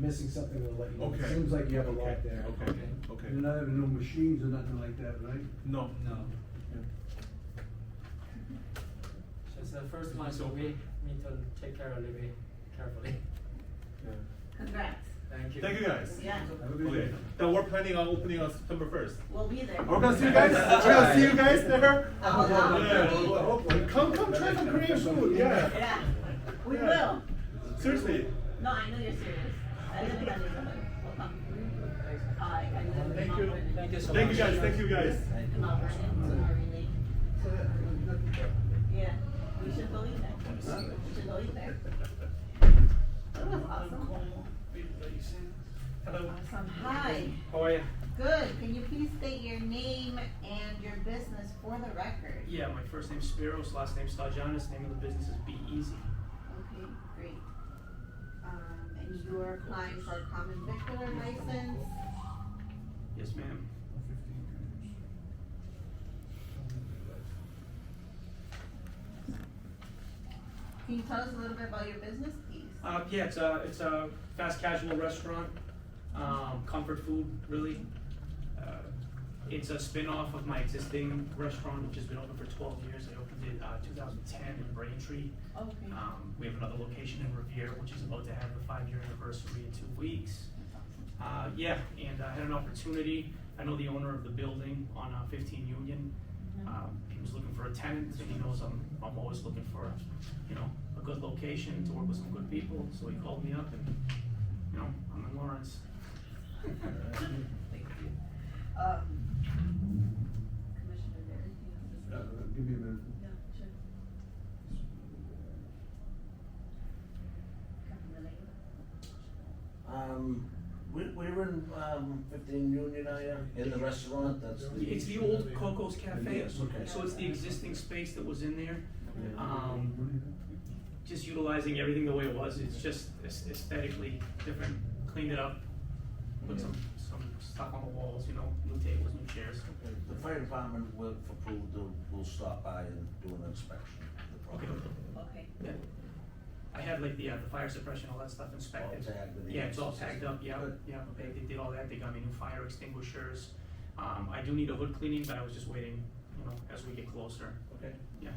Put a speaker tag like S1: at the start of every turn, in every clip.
S1: missing something, we'll let you know.
S2: Okay.
S1: Seems like you have a
S2: Okay,
S1: lot there.
S2: okay, okay.
S1: You're not having no machines or nothing like that, right?
S2: No.
S1: No.
S3: She's the first one, so we need to take care of Libby carefully.
S4: Congrats.
S3: Thank you.
S2: Thank you guys.
S4: Yeah,
S1: Have a good
S2: Okay,
S1: day.
S2: now we're planning on opening on September first.
S4: we'll be there.
S2: We're gonna see you guys, we're gonna see you guys there.
S4: Oh, wow.
S2: Yeah. Come, come, try some Korean food, yeah.
S4: Yeah, we
S2: Yeah.
S4: will.
S2: Seriously,
S4: No, I know you're serious. I live in that neighborhood. We'll come.
S3: Thanks.
S4: I, Uh, I live in
S3: Thank you,
S4: Mount
S3: thank you so much.
S2: thank you guys, thank you guys.
S4: Vernon. Mount Vernon, it's Murray Lake. Yeah, we should go eat there. We should go eat there. That was awesome.
S3: Hello,
S4: Awesome. Hi,
S3: how are you?
S4: good. Can you please state your name and your business for the record?
S5: Yeah, my first name's Spiros, last name's Stajanis, name of the business is Be Easy.
S4: Okay, great. Um, and you're applying for a common vicular license?
S5: Yes, ma'am.
S4: Can you tell us a little bit about your business, please?
S5: Uh, yeah, it's a, it's a fast casual restaurant, um, comfort food, really. Uh, It's a spin-off of my existing restaurant, which has been open for twelve years. I opened it, uh, two thousand ten in Braintree.
S4: Okay.
S5: Um, we have another location in Revere, which is about to have the five-year anniversary in two weeks. Uh, yeah, and I had an opportunity, I know the owner of the building on uh, fifteen Union.
S4: Mm-hmm.
S5: Um, he was looking for a tenant, and he knows I'm, I'm always looking for, you know, a good location to work with some good people, so he called me up and, you know, I'm in Lawrence.
S4: Thank you. Um, Commissioner Berry, do you have this?
S1: Uh, Give me a minute.
S4: Yeah, sure. Captain Delaney?
S6: Um, we, we were in, um, fifteen Union, I, in the restaurant, that's the.
S5: It's the old Coco's Cafe,
S6: Yes, okay.
S5: so it's the existing space that was in there. Um, just utilizing everything the way it was, it's just aes- aesthetically different, cleaned it up, put some, some stuff on the walls, you know, new tables, new chairs.
S6: The fire department will, for approval, they'll, will stop by and do an inspection of the property.
S4: Okay.
S5: Yeah. I had like the, uh, the fire suppression, all that stuff inspected.
S6: All tagged with the
S5: Yeah, it's all
S6: access.
S5: tagged up, yeah,
S6: Good.
S5: yeah, they, they did all that, they got me new fire extinguishers. Um, I do need a hood cleaning, but I was just waiting, you know, as we get closer,
S6: Okay.
S5: yeah.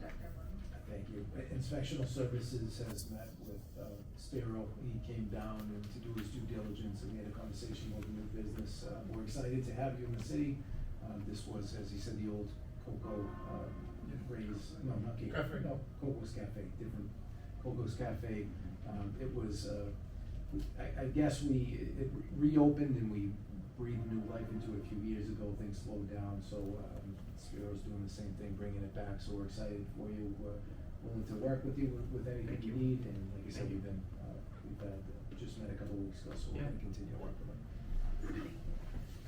S4: Dr. Moore?
S1: Thank you. I- Inspectional Services has met with uh, Sparrow. He came down and to do his due diligence, and we had a conversation over new business. Uh, We're excited to have you in the city. Uh, This was, as he said, the old Coco uh, Ray's, no, not Coco.
S3: Cafe.
S1: No, Coco's Cafe, different, Coco's Cafe. Um, It was, uh, I, I guess we, it reopened and we breathed new life into it a few years ago, things slowed down, so, um, Spiro's doing the same thing, bringing it back, so we're excited for you, we're willing to work with you with, with anything
S5: Thank
S1: you
S5: you.
S1: need, and like I said,
S5: Thank you.
S1: we've been, uh, we've had, uh, just met a couple of weeks ago, so we're
S5: Yeah.
S1: gonna continue to work with them.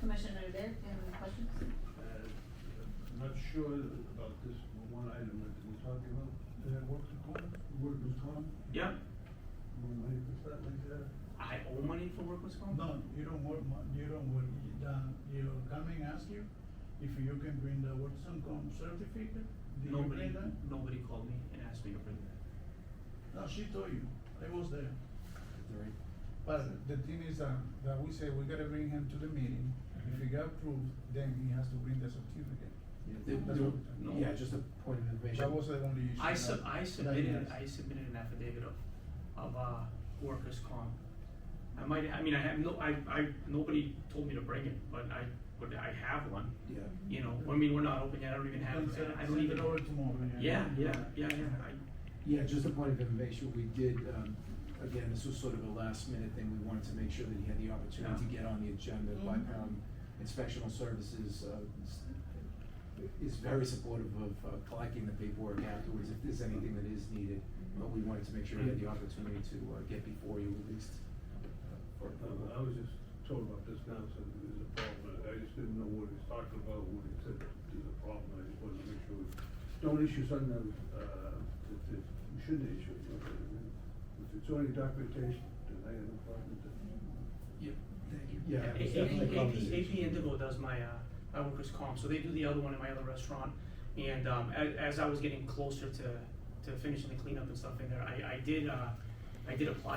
S4: Commissioner Berry, do you have any questions?
S7: I'm not sure about this one item that we talked about, uh, workers' comp, workers' comp,
S5: Yeah,
S7: more money for stuff like that.
S5: I owe money for workers' comp?
S7: No, you don't work, mon- you don't work, you don't- you're coming, ask you if you can bring the workers' comp certificate, did you
S5: Nobody,
S7: bring that?
S5: nobody called me and asked me to bring that.
S7: No, she told you, I was there.
S1: All right.
S8: But the thing is that, that we say we gotta bring him to the meeting, if he got approved, then he has to bring the certificate.
S1: Yeah, there-
S8: That's
S1: there-
S8: what we're
S5: doing.
S1: Yeah, just a point of information.
S8: That was the only issue.
S5: I
S8: that-
S5: sub, I
S8: that he
S5: submitted,
S8: has.
S5: I submitted an affidavit of, of, uh, workers' comp. I might, I mean, I have no, I, I, nobody told me to bring it, but I, but I have one,
S1: Yeah,
S5: you know, I mean, we're not open yet, I don't even have,
S7: Then uh, send-
S5: I don't
S7: Send
S5: even.
S7: it over tomorrow, yeah.
S5: Yeah, yeah, yeah, yeah, I,
S1: yeah, just a point of information, we did, um, again, this was sort of a last minute thing, we wanted to make sure that he had the opportunity to get on the agenda, but,
S4: Mhm.
S1: um, inspectional services, uh, s- is very supportive of, uh, collecting the paperwork afterwards, if there's anything that is needed, but we wanted to make sure he had the opportunity to, uh, get before you at least. uh, for
S7: I
S1: approval.
S7: I was just told about this now, so there's a problem, I just didn't know what he's talking about, when he said there's a problem, I just wanted to make sure. Don't issue something, uh, that, that you shouldn't issue, you know, if it's only documentation, then I have no problem with that.
S1: Yep, thank you. Yeah. it
S5: AP,
S1: was definitely a
S5: AP, AP
S1: conversation.
S5: Indigo does my, uh, my workers' comp, so they do the other one in my other restaurant. And, um, as, as I was getting closer to, to finishing the cleanup and stuff in there, I, I did, uh, I did apply